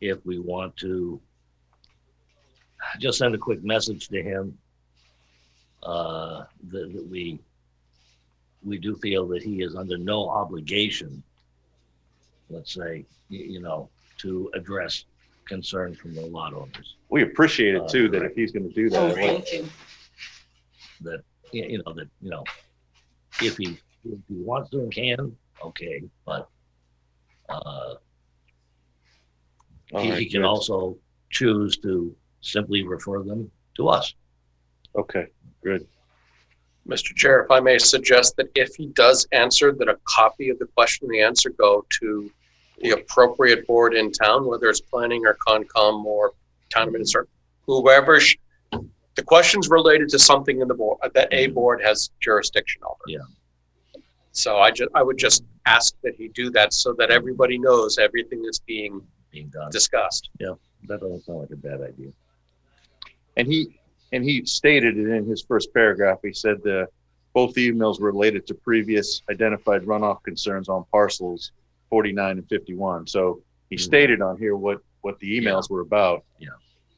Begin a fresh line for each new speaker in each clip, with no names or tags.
if we want to just send a quick message to him uh, that, that we we do feel that he is under no obligation, let's say, y- you know, to address concerns from the lot owners.
We appreciate it too, that
Right.
if he's gonna do
Oh,
that, like,
thank you.
That y- you know that you know if he if he wants to and can, okay, but uh,
all
he,
right,
he can
good.
also choose to simply refer them to us.
Okay, good.
Mr. Chair, if I may suggest that if he does answer, that a copy of the question and the answer go to the appropriate board in town, whether it's planning or Concom or town administrator, whoever. sh- The question's related to something in the board, that a board has jurisdiction over.
Yeah.
So I ju, I would just ask that he do that so that everybody knows everything that's being
being done.
discussed.
That doesn't sound like a bad idea.
And he, and he stated it in his first paragraph, he said the, both the emails related to previous identified runoff concerns on parcels forty-nine and fifty-one, so he
Mhm.
stated on here what, what the emails were about.
Yeah.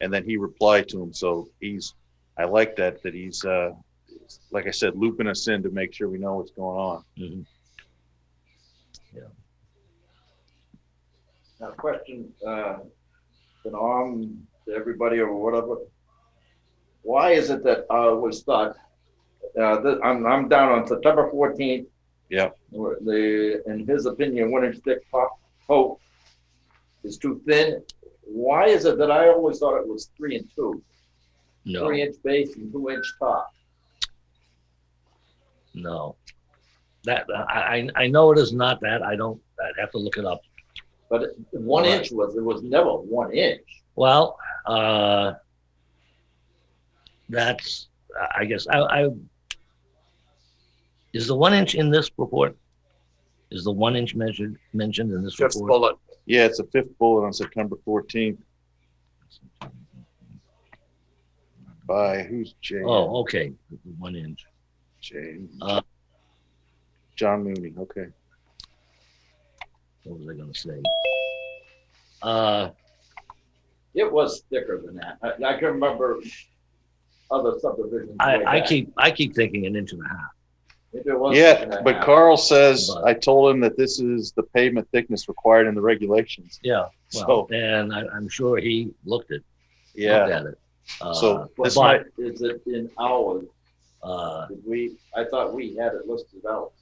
And then he replied to him, so he's, I like that, that he's, uh, like I said, looping us in to make sure we know what's going on.
Now, question, uh, to Norm, to everybody or whatever. Why is it that, uh, was thought, uh, th- I'm, I'm down on September fourteenth.
Yep.
The, in his opinion, one inch thick pop, hope is too thin. Why is it that I always thought it was three and two,
No,
three inch base and two inch top?
no. That, I, I, I know it is not that. I don't, I'd have to look it up.
But it- one
Right.
inch was, it was never one inch.
Well, uh, that's, I guess, I, I, is the one inch in this report? Is the one inch measured, mentioned in this
Fifth
report?
bullet,
Yeah, it's a fifth bullet on September fourteenth by who's Jay?
Oh, okay, the one inch.
Jay.
Uh,
John Mooney. Okay.
What was I gonna say? Uh,
It was thicker than that. I, I can remember other subdivisions. like
I, I
that.
keep, I keep thinking an inch and a half.
If it was thicker
Yeah,
than
but
that.
Carl says
But-
I told him that this is the pavement thickness required in the regulations.
Yeah, well,
So-
and I, I'm sure he looked at, looked
Yeah.
at it. Uh,
So
But
this
but,
might,
is it in hours?
uh,
Did we, I thought we had it listed out.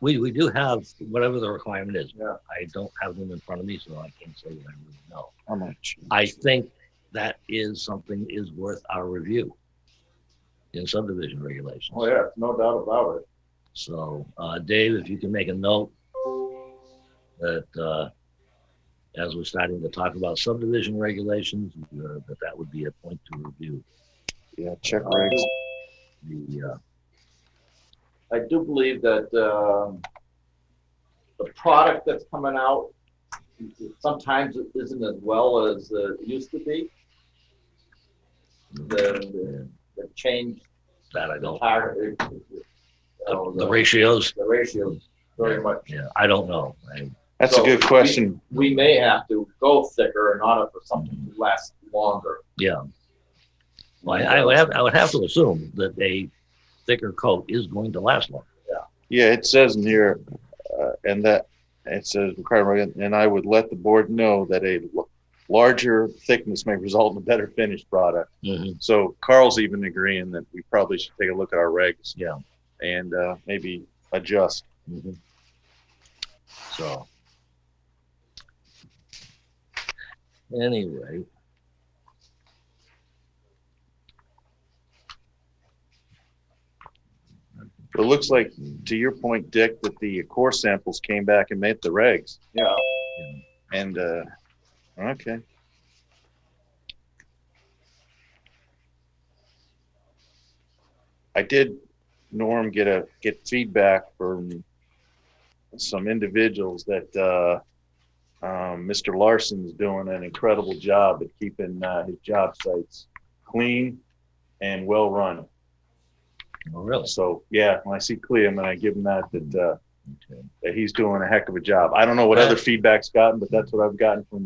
we, we do have whatever the requirement is.
Yeah.
I don't have them in front of me, so I can't say that I really know.
how much?
I think that is something is worth our review in subdivision regulations.
Oh, yeah, no doubt about it.
So, uh, Dave, if you can make a note that, uh, as we're starting to talk about subdivision regulations, uh, that that would be a point to review
Yeah, check regs.
the, uh,
I do believe that, um, the product that's coming out sometimes it isn't as well as uh, it used to be. The, the change,
that I
the
don't,
target, uh,
the ratios,
The ratio very much.
yeah, I don't know. I,
That's a
So
good
we-
question.
We may have to go thicker in order for something to last longer.
yeah. Well, I, I would have, I would have to assume that a thicker coat is going to last longer.
Yeah, it says in here, uh, and that it says required, and I would let the board know that a l- larger thickness may result in a better finished product. So Carl's even agreeing that we probably should take a look at our regs.
Yeah.
And uh, maybe adjust.
Mhm. So. Anyway.
But it looks like, to your point, Dick, that the core samples came back and met the regs.
Yeah.
And uh, okay, I did, Norm, get a get feedback from some individuals that uh, um, Mr. Larson's doing an incredible job at keeping uh, his job sites clean and well run.
Oh, really?
So yeah, when I see Clem and I give him that, that uh,
Okay.
that he's doing a heck of a job. I don't know what other feedback's gotten, but that's what I've gotten from